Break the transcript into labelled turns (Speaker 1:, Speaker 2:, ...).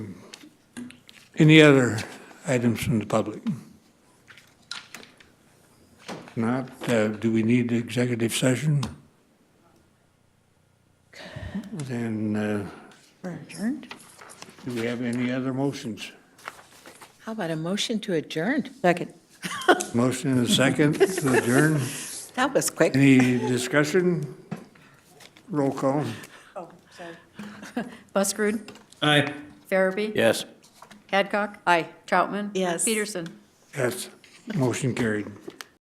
Speaker 1: Any other items from the public? If Not, uh, do we need executive session? Then, uh,
Speaker 2: We're adjourned.
Speaker 1: do we have any other motions?
Speaker 3: How about a motion to adjourn?
Speaker 2: Second.
Speaker 1: Motion and a second to adjourn.
Speaker 3: That was quick.
Speaker 1: Any discussion? Roll call.
Speaker 4: Buskerud?
Speaker 5: Aye.
Speaker 4: Farabee?
Speaker 5: Yes.
Speaker 4: Hadcock? Aye. Troutman?
Speaker 3: Yes.
Speaker 4: Peterson?
Speaker 1: Yes, motion carried.